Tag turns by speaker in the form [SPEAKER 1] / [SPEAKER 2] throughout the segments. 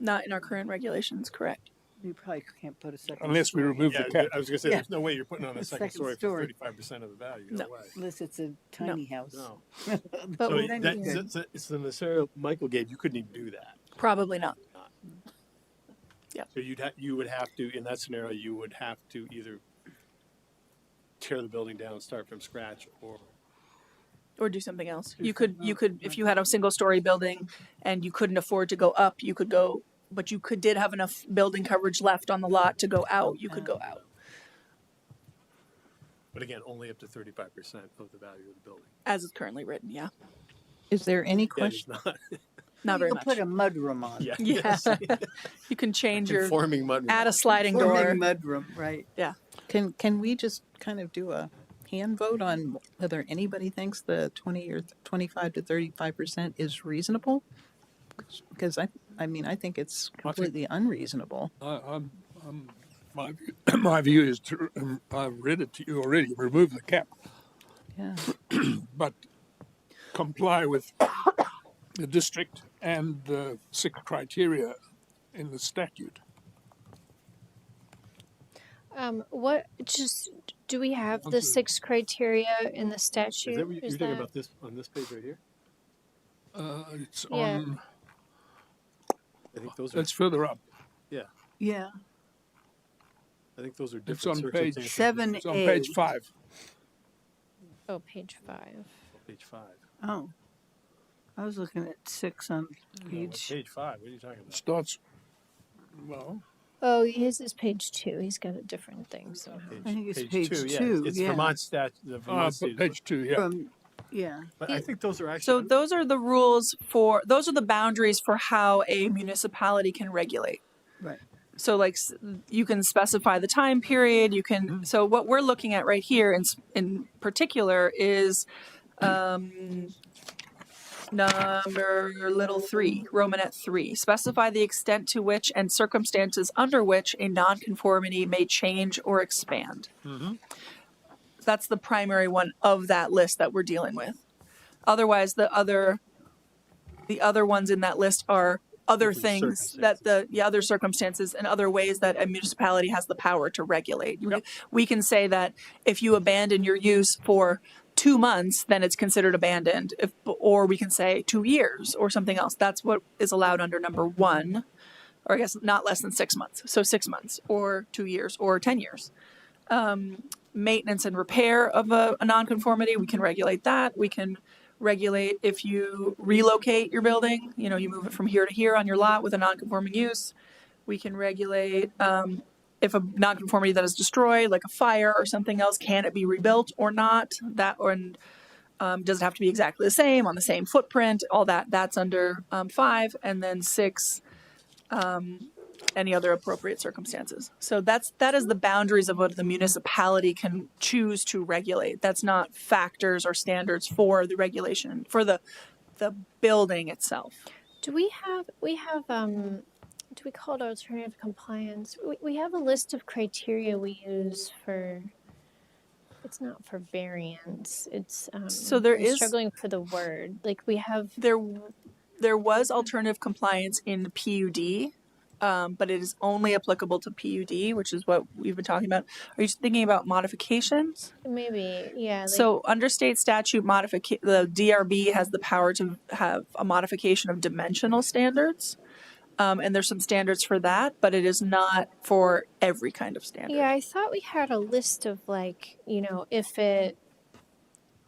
[SPEAKER 1] Not in our current regulations, correct?
[SPEAKER 2] You probably can't put a second.
[SPEAKER 3] Unless we
[SPEAKER 2] story.
[SPEAKER 3] remove the
[SPEAKER 4] Yeah,
[SPEAKER 3] deck.
[SPEAKER 4] I was gonna say,
[SPEAKER 1] Yeah.
[SPEAKER 4] there's no way you're putting on a
[SPEAKER 2] The
[SPEAKER 4] second
[SPEAKER 2] second
[SPEAKER 4] story for
[SPEAKER 2] story.
[SPEAKER 4] thirty-five percent of the value, no
[SPEAKER 1] No.
[SPEAKER 4] way.
[SPEAKER 2] Unless it's a tiny house.
[SPEAKER 4] No.
[SPEAKER 1] But
[SPEAKER 4] So
[SPEAKER 1] what I
[SPEAKER 4] that,
[SPEAKER 1] mean,
[SPEAKER 4] so- so- it's the scenario Michael gave, you couldn't even do that.
[SPEAKER 1] probably not.
[SPEAKER 4] So you'd ha- you would have to, in that scenario, you would have to either tear the building down, and start from scratch, or
[SPEAKER 1] Or do something else. You could, you could, if you had a single story building and you couldn't afford to go up, you could go, but you could, did have enough building coverage left on the lot to go out, you could go out.
[SPEAKER 4] But again, only up to thirty-five percent of the value of the building.
[SPEAKER 1] As it's currently written, yeah.
[SPEAKER 5] Is there any
[SPEAKER 4] That is
[SPEAKER 5] question?
[SPEAKER 4] not,
[SPEAKER 1] Not very
[SPEAKER 2] You could
[SPEAKER 1] much.
[SPEAKER 2] Put a mudroom on.
[SPEAKER 4] yeah.
[SPEAKER 1] Yeah. You can change your,
[SPEAKER 4] Informing mud.
[SPEAKER 1] add a sliding
[SPEAKER 2] Or
[SPEAKER 1] door.
[SPEAKER 2] maybe mudroom, right?
[SPEAKER 5] Can, can we just kind of do a hand vote on whether anybody thinks the 20 or 25 to 35% is reasonable? Because I, I mean, I think it's completely unreasonable.
[SPEAKER 3] I- I'm, I'm, my, view- my view is to, um, I've read it to you already, remove the cap,
[SPEAKER 5] Yeah.
[SPEAKER 3] but comply with the district and the six criteria in the statute.
[SPEAKER 6] Um, what just do we have
[SPEAKER 3] Okay.
[SPEAKER 6] the six criteria in the statute?
[SPEAKER 4] Is that what you- you're
[SPEAKER 6] Is
[SPEAKER 4] talking
[SPEAKER 6] that-
[SPEAKER 4] about this, on this page right here?
[SPEAKER 3] Uh, it's
[SPEAKER 6] Yeah.
[SPEAKER 3] on,
[SPEAKER 4] I think those are,
[SPEAKER 3] that's further up.
[SPEAKER 2] Yeah.
[SPEAKER 4] I think those are
[SPEAKER 3] It's
[SPEAKER 4] different
[SPEAKER 3] on page-
[SPEAKER 4] circumstances.
[SPEAKER 2] Seven
[SPEAKER 3] It's on
[SPEAKER 2] A.
[SPEAKER 3] page five.
[SPEAKER 6] Oh, page five.
[SPEAKER 4] Page five.
[SPEAKER 2] Oh. I was looking at six on
[SPEAKER 4] No, what-
[SPEAKER 2] page.
[SPEAKER 4] Page five, what are you talking
[SPEAKER 3] It
[SPEAKER 4] about?
[SPEAKER 3] starts, well,
[SPEAKER 6] Oh, his is page two. He's got a different thing. So
[SPEAKER 2] I think it's page
[SPEAKER 4] yeah.
[SPEAKER 2] two,
[SPEAKER 4] It's
[SPEAKER 2] yeah.
[SPEAKER 4] Vermont stat, the
[SPEAKER 3] uh,
[SPEAKER 4] Vermont state.
[SPEAKER 3] page two, yeah.
[SPEAKER 2] From, yeah.
[SPEAKER 4] But I think those are
[SPEAKER 1] So
[SPEAKER 4] actually,
[SPEAKER 1] those are the rules for, those are the boundaries for how a municipality can regulate.
[SPEAKER 2] Right.
[SPEAKER 1] So like s- you can specify the time period, you can, so what we're looking at right here in, s- in particular is um, number your little three, Romanet three, specify the extent to which and circumstances under which a nonconformity may change or expand. That's the primary one of that list that we're dealing with. Otherwise, the other, the other ones in that list are other
[SPEAKER 4] Different
[SPEAKER 1] things that the, the other circumstances and other ways that a municipality has the power to regulate. You- We can say that if you abandon your use for two months, then it's considered abandoned. If, or we can say two years or something else. That's what is allowed under number one, or I guess not less than six months. So six months or two years or 10 years. Um, maintenance and repair of a, a nonconformity, we can regulate that. We can regulate if you relocate your building, you know, you move it from here to here on your lot with a nonconforming use. We can regulate um, if a nonconformity that is destroyed, like a fire or something else, can it be rebuilt or not? That or and um, does it have to be exactly the same on the same footprint? All that that's under um, five, and then six, um, any other appropriate circumstances. So that's that is the boundaries of what the municipality can choose to regulate. That's not factors or standards for the regulation for the the building itself.
[SPEAKER 6] do we have we have um do we call it alternative compliance? We, we have a list of criteria we use for. It's not for variance. It's um,
[SPEAKER 1] So there
[SPEAKER 6] I'm
[SPEAKER 1] is-
[SPEAKER 6] struggling for the word. Like we have
[SPEAKER 1] there there was alternative compliance in the PUD, um, but it is only applicable to PUD, which is what we've been talking about. Are you thinking about modifications?
[SPEAKER 6] maybe yeah. Like,
[SPEAKER 1] So under state statute, modifica- the DRB has the power to have a modification of dimensional standards. Um, and there's some standards for that, but it is not for every kind of standard.
[SPEAKER 6] Yeah, I thought we had a list of like, you know, if it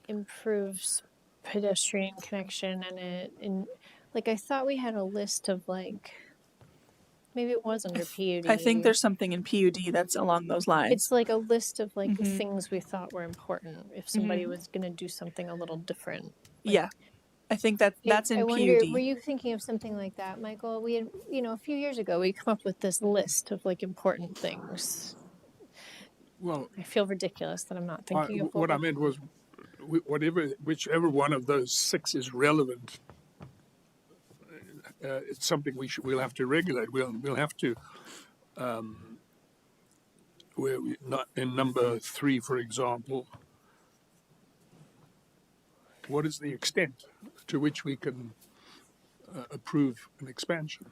[SPEAKER 6] improves pedestrian connection and it and like I thought we had a list of like maybe it was under PUD.
[SPEAKER 1] I think there's something in PUD that's along those lines.
[SPEAKER 6] it's like a list of like
[SPEAKER 1] Mhm.
[SPEAKER 6] things we thought were important if somebody
[SPEAKER 1] Mm-hmm.
[SPEAKER 6] was going to do something a little different.
[SPEAKER 1] yeah, I think that
[SPEAKER 6] I-
[SPEAKER 1] that's in
[SPEAKER 6] I
[SPEAKER 1] PUD.
[SPEAKER 6] wonder, Were you thinking of something like that, Michael? We had, you know, a few years ago, we come up with this list of like important things.
[SPEAKER 3] Well,
[SPEAKER 6] I feel ridiculous that I'm not
[SPEAKER 3] I-
[SPEAKER 6] thinking of
[SPEAKER 3] what I
[SPEAKER 6] we-
[SPEAKER 3] meant was wh- whatever, whichever one of those six is relevant, uh, it's something we should, we'll have to regulate. We'll, we'll have to, um, where we, not in number three, for example, what is the extent to which we can uh, approve an expansion?